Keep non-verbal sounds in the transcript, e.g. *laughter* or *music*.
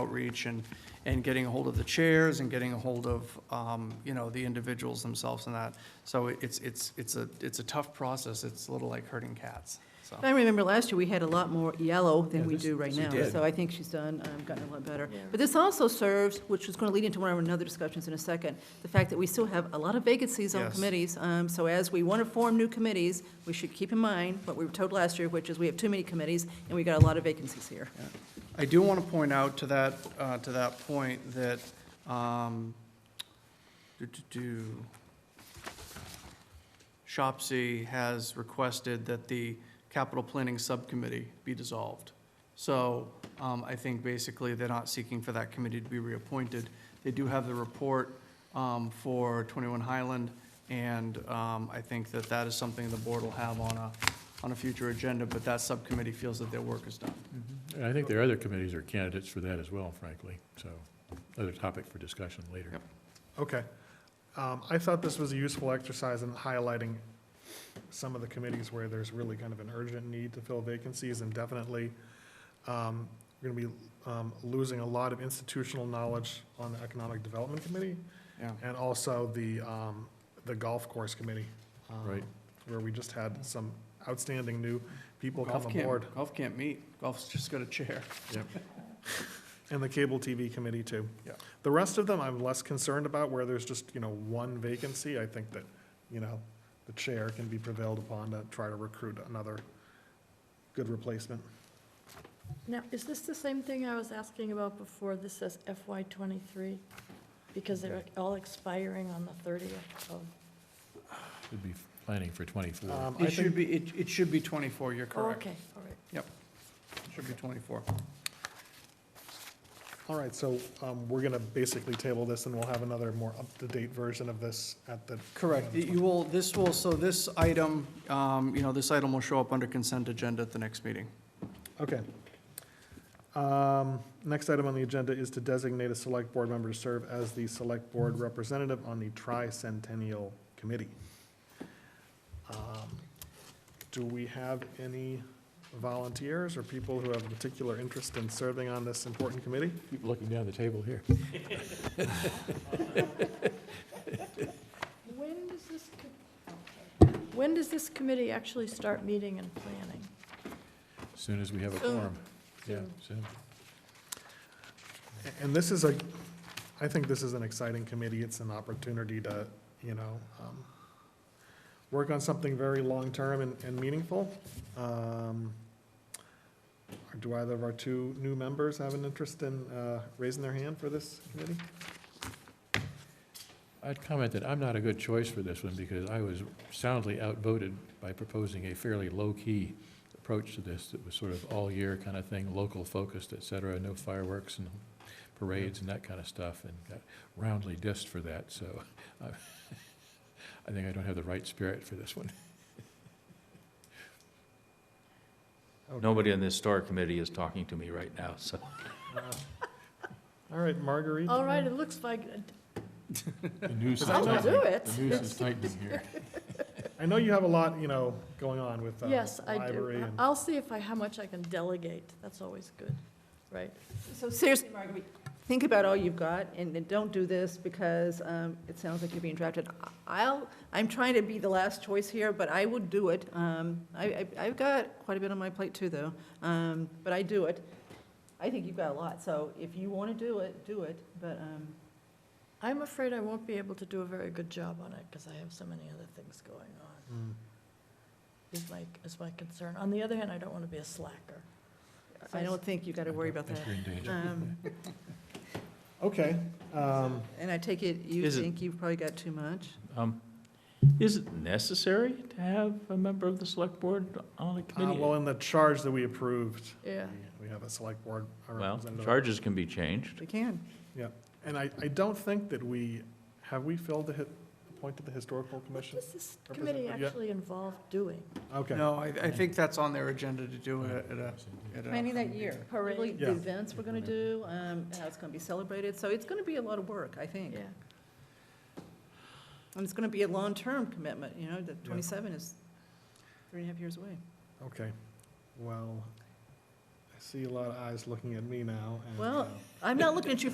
outreach and, and getting a hold of the chairs and getting a hold of, um, you know, the individuals themselves and that. So it's, it's, it's a, it's a tough process. It's a little like herding cats, so. I remember last year, we had a lot more yellow Yeah, than we this- do right this we now. did. So I think she's done, um, gotten a lot better. But this also serves, which is going to lead into one of our other discussions in a second, the fact that we still have a lot of vacancies on Yes. committees. Um, So as we want to form new committees, we should keep in mind what we were told last year, which is we have too many committees, and we got a lot of vacancies here. I do want to point out to that, uh, to that point that, um, do, do, do. Shopsy has requested that the capital planning subcommittee be dissolved. So, um, I think basically they're not seeking for that committee to be reappointed. They do have the report, um, for twenty-one Highland, and, um, I think that that is something the board will have on a, on a future agenda, but that subcommittee feels that their work is done. And I think there are other committees or candidates for that as well, frankly, so, other topic for discussion later. Yep. Okay. Um, I thought this was a useful exercise in highlighting some of the committees where there's really kind of an urgent need to fill vacancies and definitely um, we're going to be um, losing a lot of institutional knowledge on the Economic Development Committee Yeah. and also the, um, the Golf Course Committee. um, Right. Where we just had some outstanding new people come Golf aboard. can't, golf can't meet. Golf's just got a *laughs* chair. And the cable TV committee too. Yeah. The rest of them, I'm less concerned about where there's just, you know, one vacancy. I think that, you know, the chair can be prevailed upon to try to recruit another good replacement. Now, is this the same thing I was asking about before? This says FY twenty-three? Because they're all expiring on the thirtieth of, oh, We'd be planning for 24. Um, I It should think, be, it, it should be 24, you're oh, correct. okay, all right. Should be 24. all right, so, um, we're gonna basically table this and we'll have another more up-to-date version of this at the. Correct. You will, this will, so this item, um, you know, this item will show up under consent agenda at the next meeting. Okay. Um, next item on the agenda is to designate a select board member to serve as the select board representative on the tricentennial committee. Um, Do we have any volunteers or people who have a particular interest in serving on this important committee? Keep looking down the table here. When does this, co- when does this committee actually start meeting and planning? Soon as we have a Soon. quorum. Yeah, soon. A- And this is a, I think this is an exciting committee. It's an opportunity to, you know, um, work on something very long-term and, and meaningful. Um, Do either of our two new members have an interest in, uh, raising their hand for this committee? I'd comment that I'm not a good choice for this one because I was soundly outvoted by proposing a fairly low-key approach to this that was sort of all-year kind of thing, local focused, et cetera, no fireworks and parades and that kind of stuff, and got roundly dissed for that, so *laughs* I I think I don't have the right spirit for this one. *laughs* Nobody on this STAR committee is talking to me right now, so. Uh, All right, Marguerite? All right, it looks like, The noose is I will Oh, do tightening. it. The noose is tightening here. I know you have a lot, you know, going on with, uh, Yes, I library do. Uh, and- I'll see if I, how much I can delegate. That's always good, right? So seriously, Marguerite, think about all you've got, and and don't do this because um, it sounds like you're being drafted. I'll, I'm trying to be the last choice here, but I would do it. Um, I, I- I've got quite a bit on my plate too, though, Um, but I do it. I think you've got a lot, so if you want to do it, do it, but, um, I'm afraid I won't be able to do a very good job on it because I have so many other things going on, Mm. is my, is my concern. On the other hand, I don't want to be a slacker. I don't think you've got to worry about I that. think you're in danger. Um, Okay, um, And I take it you Is it- think you've probably got too much? um, Is it necessary to have a member of the select board on a uh, well, committee? in the charge that we approved, Yeah. we have a select board. a Well, representative. charges can be changed. We can. And I, I don't think that we, have we filled the, hi- appointed the historical commission? What does this committee Representative, yeah. actually involve doing? Okay. No, I, I think that's on their agenda to do it at a, uh, at a. Planning that year, probably the Yeah. events we're going to do, um, how it's going to be celebrated, so it's going to be a lot of work, I think. Yeah. And it's going to be a long-term commitment, you know, the 27 is three and a half years away. Okay, well, I see a lot of eyes looking at me now. and, Well, uh, uh, I'm not looking at you